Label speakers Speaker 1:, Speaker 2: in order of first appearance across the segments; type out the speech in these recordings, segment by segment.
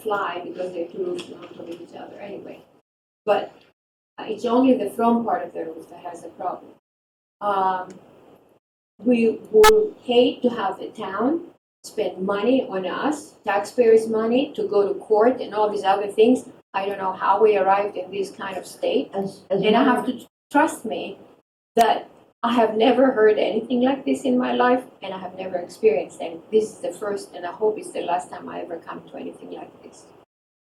Speaker 1: fly because they're too not from each other anyway. But uh, it's only the front part of the roof that has a problem. Um, we would hate to have the town spend money on us, taxpayers' money, to go to court and all these other things. I don't know how we arrived in this kind of state.
Speaker 2: As, as
Speaker 1: And I
Speaker 2: long
Speaker 1: have to trust me that I have never heard anything like this in my life and I have never experienced anything. This is the first and I hope it's the last time I ever come to anything like this.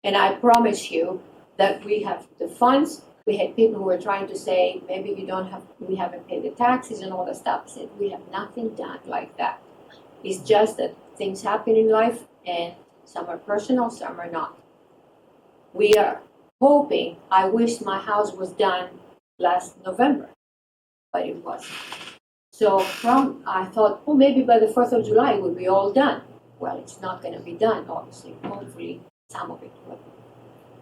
Speaker 1: And I promise you that we have the funds. We had people who were trying to say, maybe you don't have, we haven't paid the taxes and all that stuff. I said, we have nothing done like that. It's just that things happen in life and some are personal, some are not. We are hoping I wish my house was done last November, but it wasn't. So from I thought, oh, maybe by the fourth of July it will be all done. Well, it's not going to be done, obviously. Hopefully, some of it will.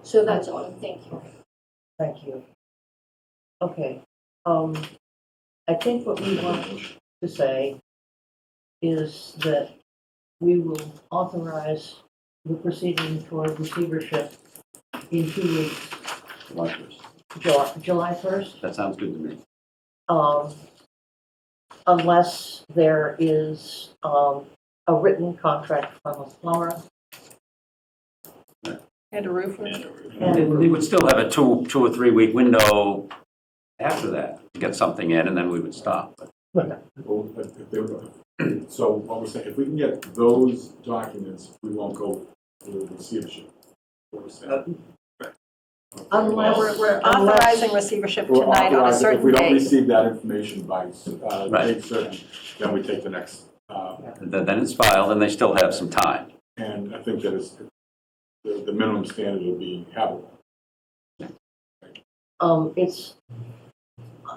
Speaker 1: So that's all. and Thank you.
Speaker 2: Thank you. Okay, um, I think what we want to say is that we will authorize the proceeding for receivership in two weeks,
Speaker 3: July first.
Speaker 2: July, July first.
Speaker 3: That sounds good to me.
Speaker 2: um, unless there is, um, a written contract from a plumber.
Speaker 4: And a roofer.
Speaker 3: And we would still have a two, two or three week window after that to get something in, and then we would stop. But
Speaker 5: Well, if- if they were- So what we're saying, if we can get those documents, we won't go through the receivership. What we're saying.
Speaker 4: Uh,
Speaker 5: Okay.
Speaker 2: Unless-
Speaker 4: We're we're
Speaker 2: Unless-
Speaker 4: authorizing receivership
Speaker 5: We're
Speaker 4: tonight on a
Speaker 5: authorized- If
Speaker 4: certain
Speaker 5: we don't
Speaker 4: date.
Speaker 5: receive that information by, uh,
Speaker 3: Right.
Speaker 5: date certain, then we take the next, uh,
Speaker 3: Then then it's filed, and they still have some time.
Speaker 5: and I think that is, the, the minimum standard would be habitable.
Speaker 2: Um, it's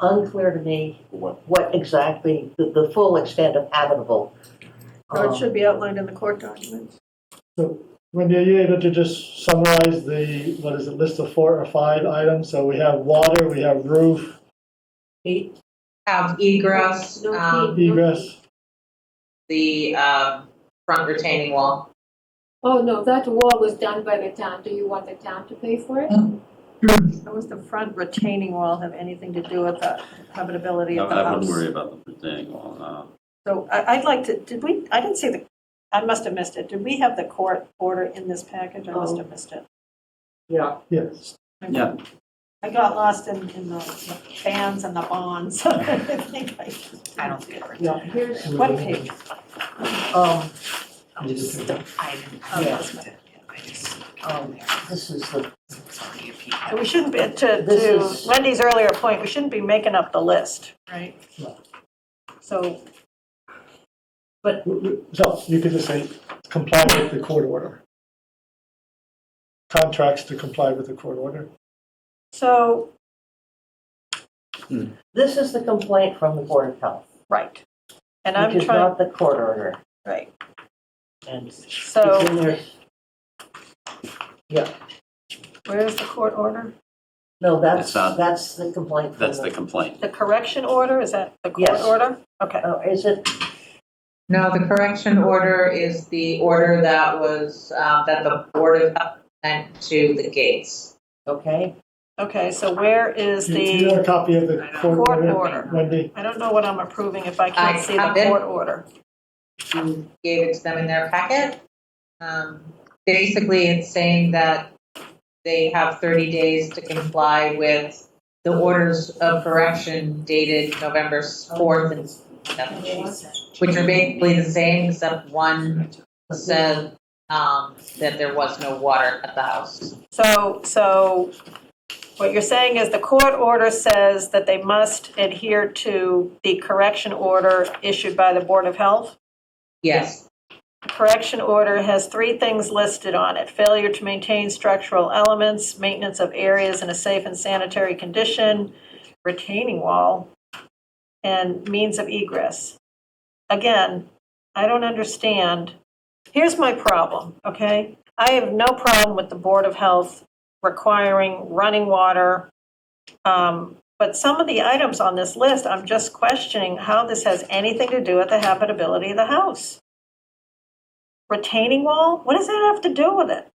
Speaker 2: unclear to me
Speaker 5: for what,
Speaker 2: what exactly the, the full extent of habitable.
Speaker 4: So
Speaker 2: um,
Speaker 4: it should be outlined in the court documents.
Speaker 6: Wendy, are you able to just summarize the, what is it, list of four or five items? So we have water, we have roof,
Speaker 2: Pete?
Speaker 7: have egress,
Speaker 1: No
Speaker 7: um,
Speaker 1: key.
Speaker 6: egress.
Speaker 7: the, um, front retaining wall.
Speaker 1: Oh no, that wall was done by the town. Do you want the town to pay for it?
Speaker 4: How does the front retaining wall have anything to do with the habitability
Speaker 3: I
Speaker 4: of the
Speaker 3: I wouldn't worry
Speaker 4: house?
Speaker 3: about the thing. Uh, well, no.
Speaker 4: So I, I'd like to, did we, I didn't see the, I must have missed it. Did we have the court order in this package? I must have missed it.
Speaker 2: Yeah.
Speaker 6: Yes.
Speaker 3: Yeah,
Speaker 4: I got lost in, in the fans and the bonds. I think I-
Speaker 7: I don't see it.
Speaker 2: Yeah, here's,
Speaker 4: What page?
Speaker 2: um,
Speaker 7: Oh, I didn't,
Speaker 4: Oh, that's my-
Speaker 7: I just,
Speaker 2: um, this is the,
Speaker 7: it's already a peek.
Speaker 4: And we shouldn't be, to,
Speaker 2: This
Speaker 4: to
Speaker 2: is-
Speaker 4: Wendy's earlier point, we shouldn't be making up the list, right?
Speaker 6: No.
Speaker 4: So,
Speaker 6: So you could just say comply with the court order. Contracts to comply with the court order.
Speaker 4: so,
Speaker 2: this is the complaint from the Board of Health,
Speaker 4: right. And I'm
Speaker 2: which is
Speaker 4: trying,
Speaker 2: not the court order.
Speaker 4: right,
Speaker 2: And it's in
Speaker 4: so
Speaker 2: there,
Speaker 4: where's the court order?
Speaker 2: no, that's,
Speaker 3: It's not-
Speaker 2: that's the complaint from
Speaker 3: that's the
Speaker 2: the,
Speaker 3: complaint.
Speaker 4: The correction order, is that the court
Speaker 2: Yes.
Speaker 4: order? Okay,
Speaker 2: oh, is it,
Speaker 7: No, the correction order is the order that was, um, that the Board of Health sent to the gates.
Speaker 2: okay?
Speaker 4: okay, so where is
Speaker 6: Do you have
Speaker 4: the
Speaker 6: a copy of the court
Speaker 4: court
Speaker 6: order,
Speaker 4: order?
Speaker 6: Wendy?
Speaker 4: I don't know what I'm approving if I can't
Speaker 7: I
Speaker 4: see the
Speaker 7: have it.
Speaker 4: court order.
Speaker 7: You gave it to them in their packet. Um, basically, it's saying that they have thirty days to comply with the orders of correction dated November fourth and seventh, which are basically the same, except one said, um, that there was no water at the house.
Speaker 4: So, so what you're saying is the court order says that they must adhere to the correction order issued by the Board of Health?
Speaker 7: Yes,
Speaker 4: correction order has three things listed on it. Failure to maintain structural elements, maintenance of areas in a safe and sanitary condition, retaining wall, and means of egress. Again, I don't understand. Here's my problem, okay? I have no problem with the Board of Health requiring running water. um, But some of the items on this list, I'm just questioning how this has anything to do with the habitability of the house retaining wall? What does that have to do with it?